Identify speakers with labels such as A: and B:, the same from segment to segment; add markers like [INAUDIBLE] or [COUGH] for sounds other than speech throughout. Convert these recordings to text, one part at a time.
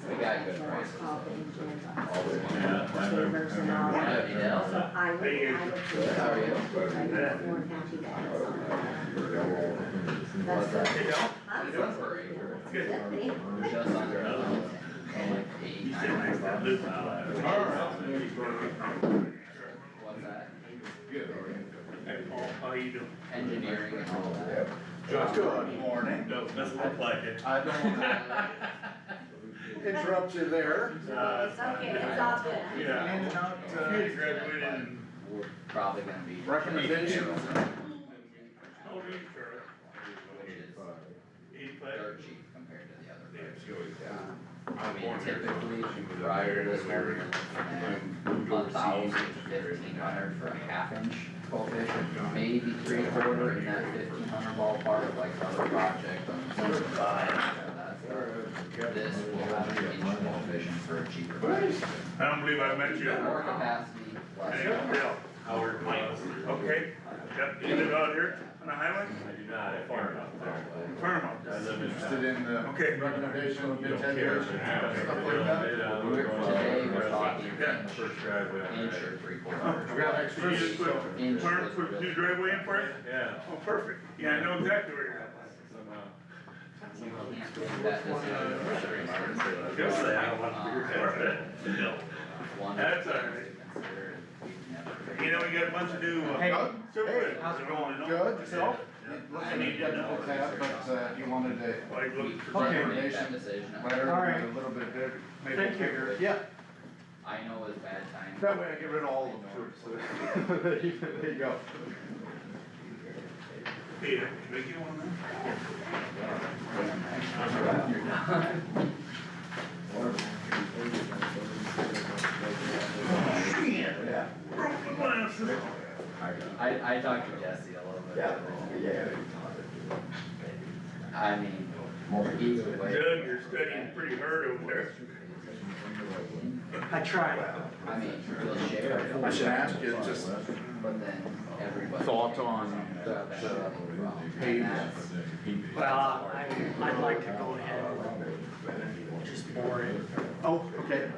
A: more confident in us.
B: Yeah, I remember, I remember when that
C: Yeah,
A: So
B: happened.
A: I would, I would. feel-
C: How are you?
A: I'd be more than happy to add something. That's
C: What's
A: good.
D: Hey, Del,
A: Huh?
C: Salisbury,
D: good.
A: That me?
C: just under a thousand, and like eight,
D: You
C: nine
D: said nice
C: hundred
D: to
C: bucks.
D: live
C: What's that?
D: How you doing?
C: Engineering and all that.
E: Good morning.
D: No, doesn't look like it.
E: I don't interrupt you there.
D: Uh,
A: It's okay, it's all good.
D: Yeah.
E: In and out, uh,
D: You graduated in.
C: We're probably gonna be.
E: Recommendations.
D: How old are you, Charlie?
C: Which is
D: Eighty-five?
C: dirt cheap compared to the other.
D: Yeah,
C: roads.
D: she always-
C: I mean, typically, prior to this one, you're looking at a thousand to fifteen hundred for a half inch coefficient, maybe three quarter in that fifteen hundred ballpark, like other project on certain side, and that's our- This will have an inch coefficient for a cheaper. price.
D: I don't believe I met you.
C: More capacity,
D: Hey,
C: less.
D: Del,
B: Howard Miles.
D: okay, yep, you live out here on the highway?
B: I do not, I farm out there.
D: Paramount.
B: I live in.
E: Interested in the
D: Okay.
E: recommendation of
B: You don't care.
E: continuation, stuff like that.
C: We're, today, we're talking
D: Yeah.
C: inch,
B: First driveway. on
C: inch
B: the
C: or
B: right.
C: three quarters.
E: We got
D: So you
E: extras,
D: just put,
E: so
C: Inch
D: Paramount
C: was
D: put a new
C: really-
D: driveway in for us?
B: Yeah.
D: Oh, perfect, yeah, I know exactly where you're at.
B: Somehow.
C: We can't do that this year.
D: Yes, I have
E: Uh,
C: One of
D: That's
C: the things to
D: all right.
C: consider, we've never-
D: You know, we got a bunch of new, uh.
E: Hey.
D: surveys.
E: Hey, how's it
D: going?
E: good, yourself?
D: Yeah.
E: I need to know that, but uh, you wanted to,
D: Like,
C: We
D: look,
C: could
E: Okay.
C: make that decision.
E: letter a little bit bigger, maybe
C: Thank you.
E: bigger. Yeah,
C: I know it's bad time.
E: that way I get rid of all of them. [LAUGHS] There you go.
D: hey, can I get one of them?
E: Yeah.
D: Broken glasses.
C: [LAUGHS] I, I talked to Jesse a little bit. I mean, either way.
D: Doug, you're studying pretty hard over there.
F: I tried.
C: I mean, we'll share it,
E: I should ask you, just
C: but then everybody.
E: Thought on that, uh, page.
F: Well, I, I'd like to go ahead and just bore it.
E: Oh, okay.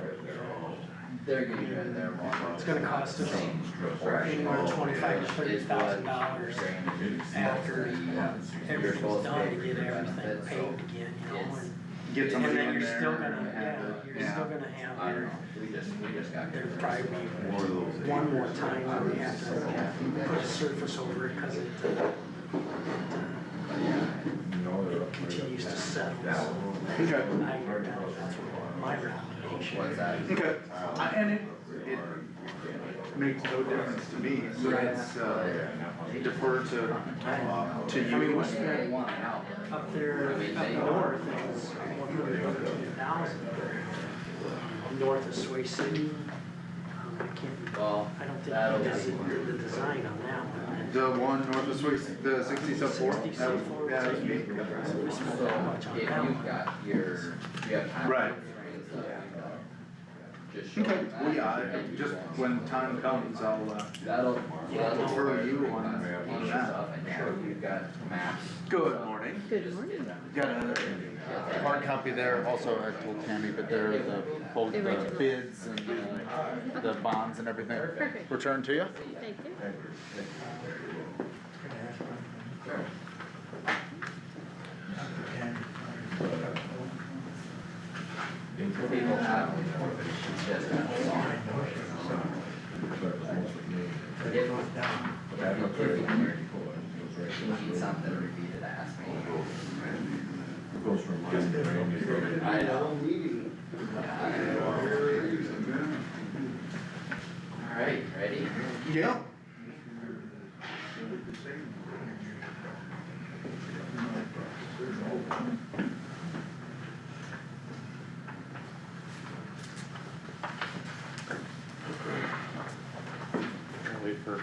C: They're getting rid of their one.
F: It's gonna cost us anywhere twenty-five to thirty thousand dollars after everything's done to get everything paved again, you know? and-
E: Get somebody
F: And then
E: in
F: you're
E: there.
F: still gonna, yeah, you're
E: Yeah.
F: still gonna
C: I
F: have
C: don't know,
F: your,
C: we just, we just got.
F: there'd probably be one more time where we have to put a surface over it, cause it, uh, it continues to settle, so.
E: Okay.
F: I, that's what my recommendation.
C: What's that?
E: Okay, I- and it, it makes no difference to me, so it's, uh, defer to, uh, to
F: I mean,
E: you.
F: what's the-
C: One out.
F: Up there, up north, it's one hundred and fifty thousand. North of Sway City, um, I can't,
C: Well,
F: I don't
C: that'll
F: think
C: be.
F: he does it- the design on that one.
E: The one north of Swiss, the sixty sub four,
F: Sixty
E: that was,
F: sub four,
E: that was me.
F: So we spent
C: So
F: that much on
C: if
F: that
C: you've
F: one.
C: got your, you have time.
E: Right.
C: Just show
E: Okay,
C: them that.
E: well, yeah, I- just when time comes, I'll, uh,
C: That'll.
F: Yeah,
C: that'll
E: for
C: work
E: you
C: with
E: on-
C: us,
E: on
C: and
E: that.
C: stuff, And sure, you've got maps.
E: good morning.
A: Good morning.
E: Got another
G: Hard copy there, also I told Tammy, but there are the, both the bids and the, the bonds and everything.
A: Perfect.
G: Return to you?
A: Thank you.
C: People have. just a song. If, if you need something repeated, ask me. I know. Alright, ready?
E: Yeah.
G: Wait for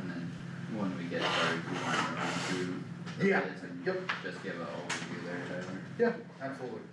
C: And then when we get started, we want to run through. the
E: Yeah,
C: bids and
E: yep.
C: Just give a overview there, Tyler.
E: Yeah, absolutely.